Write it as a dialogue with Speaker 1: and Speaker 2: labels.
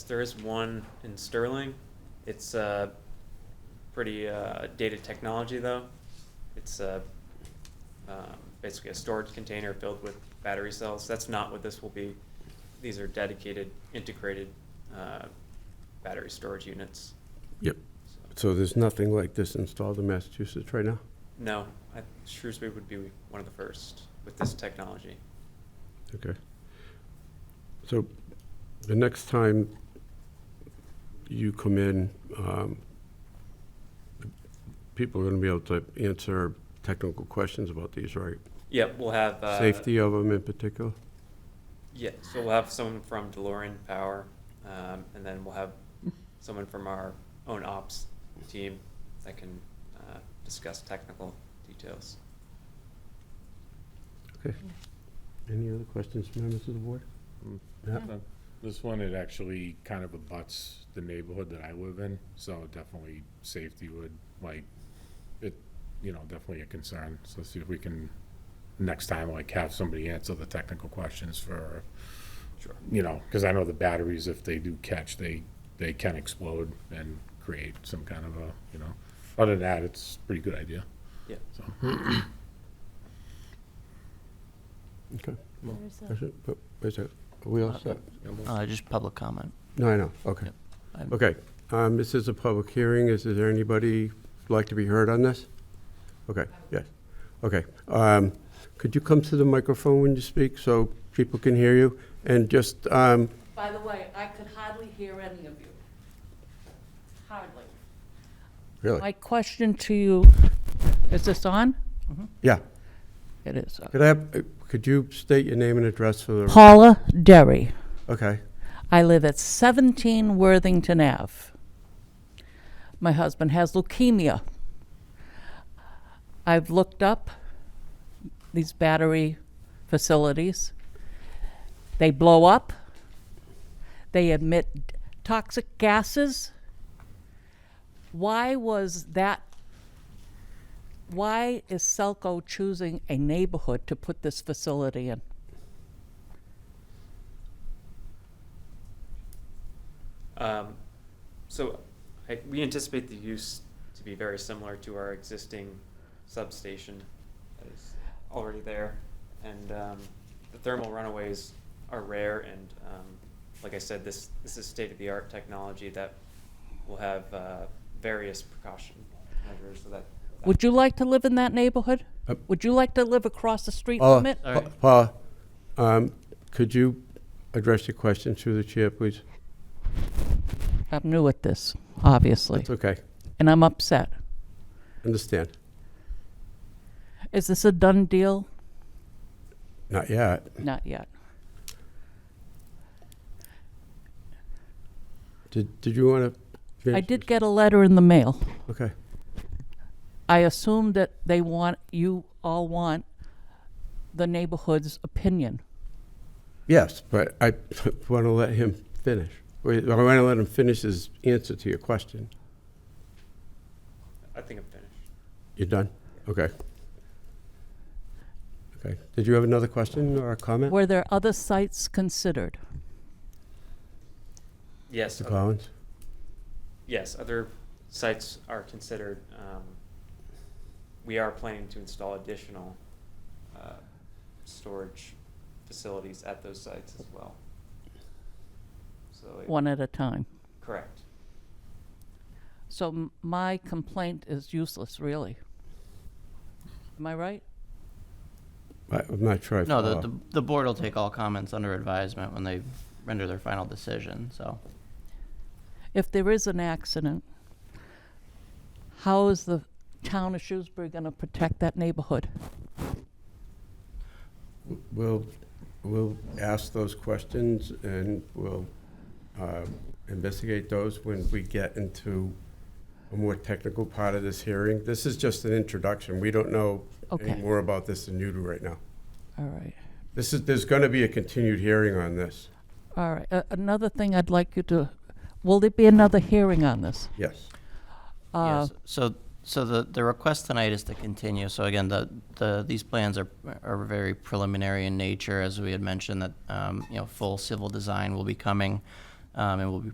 Speaker 1: There is one in Sterling. It's uh, pretty uh, dated technology though. It's uh, um, basically a storage container filled with battery cells. That's not what this will be. These are dedicated, integrated uh, battery storage units.
Speaker 2: Yep.
Speaker 1: So,
Speaker 2: So there's nothing like this installed in Massachusetts right now?
Speaker 1: no, I, Shrewsbury would be one of the first with this technology.
Speaker 2: Okay. So the next time you come in, um, people are going to be able to answer technical questions about these, right?
Speaker 1: Yep, we'll have uh,
Speaker 2: Safety of them in particular?
Speaker 1: Yeah, so we'll have someone from DeLorean Power, um, and then we'll have someone from our own ops team that can uh, discuss technical details.
Speaker 2: Okay. Any other questions, members of the board? Matt?
Speaker 3: So, This one, it actually kind of abuts the neighborhood that I live in, so definitely safety would, like, it, you know, definitely a concern. So see if we can, next time, like, have somebody answer the technical questions for,
Speaker 1: Sure.
Speaker 3: you know, because I know the batteries, if they do catch, they, they can explode and create some kind of a, you know, other than that, it's a pretty good idea.
Speaker 1: Yeah.
Speaker 3: So,
Speaker 2: Okay.
Speaker 4: There's
Speaker 2: That's
Speaker 4: a-
Speaker 2: it. But Wait a second. Are we all set?
Speaker 5: Uh, just public comment.
Speaker 2: No, I know. Okay.
Speaker 5: Yep. I'm-
Speaker 2: Okay, um, this is a public hearing. Is is there anybody who'd like to be heard on this? Okay, yes. Okay. um, Could you come to the microphone when you speak so people can hear you? And just, um,
Speaker 4: By the way, I could hardly hear any of you. Hardly. My
Speaker 2: really?
Speaker 4: question to you, is this on?
Speaker 2: Yeah.
Speaker 4: It is.
Speaker 2: Could I have, uh, could you state your name and address for the,
Speaker 4: Paula Derry.
Speaker 2: okay,
Speaker 4: I live at 17 Worthington Ave. My husband has leukemia. I've looked up these battery facilities. They blow up, they emit toxic gases. Why was that? Why is Selco choosing a neighborhood to put this facility in?
Speaker 1: Um, So I- we anticipate the use to be very similar to our existing substation that is already there. And um, the thermal runaways are rare and, um, like I said, this, this is state-of-the-art technology that will have uh, various precaution measures so that. that-
Speaker 4: Would you like to live in that neighborhood?
Speaker 2: Uh,
Speaker 4: Would you like to live across the street
Speaker 2: Paula,
Speaker 4: from it?
Speaker 2: Pa- Paula, um, could you address your question through the chair, please?
Speaker 4: I'm new at this, obviously,
Speaker 2: It's okay,
Speaker 4: and I'm upset.
Speaker 2: understand.
Speaker 4: Is this a done deal?
Speaker 2: Not yet.
Speaker 4: Not yet.
Speaker 2: Did Did you want to?
Speaker 4: I did get a letter in the mail.
Speaker 2: Okay,
Speaker 4: I assume that they want, you all want the neighborhood's opinion.
Speaker 2: yes, but I want to let him finish. Wait, I want to let him finish his answer to your question.
Speaker 1: I think I'm finished.
Speaker 2: You're done? Okay. Okay. Did you have another question or a comment?
Speaker 4: Were there other sites considered?
Speaker 1: Yes,
Speaker 2: Mr.
Speaker 1: oth-
Speaker 2: Collins?
Speaker 1: yes, other sites are considered. um, We are planning to install additional uh, storage facilities at those sites as well. So, it-
Speaker 4: One at a time.
Speaker 1: correct.
Speaker 4: So m- my complaint is useless, really. Am I right?
Speaker 2: I- I'm not sure. I
Speaker 5: No, the,
Speaker 2: follow.
Speaker 5: the, the board will take all comments under advisement when they render their final decision, so.
Speaker 4: if there is an accident, how is the town of Shrewsbury going to protect that neighborhood?
Speaker 2: We'll, we'll ask those questions and we'll uh, investigate those when we get into a more technical part of this hearing. This is just an introduction. We don't know any
Speaker 4: Okay.
Speaker 2: more about this than you do right now.
Speaker 4: All right.
Speaker 2: This is, there's going to be a continued hearing on this.
Speaker 4: All right. A another thing I'd like you to, will there be another hearing on this?
Speaker 2: Yes.
Speaker 4: Uh,
Speaker 5: Yes, so, so the, the request tonight is to continue, so again, the, the, these plans are, are very preliminary in nature, as we had mentioned, that, um, you know, full civil design will be coming, um, and will be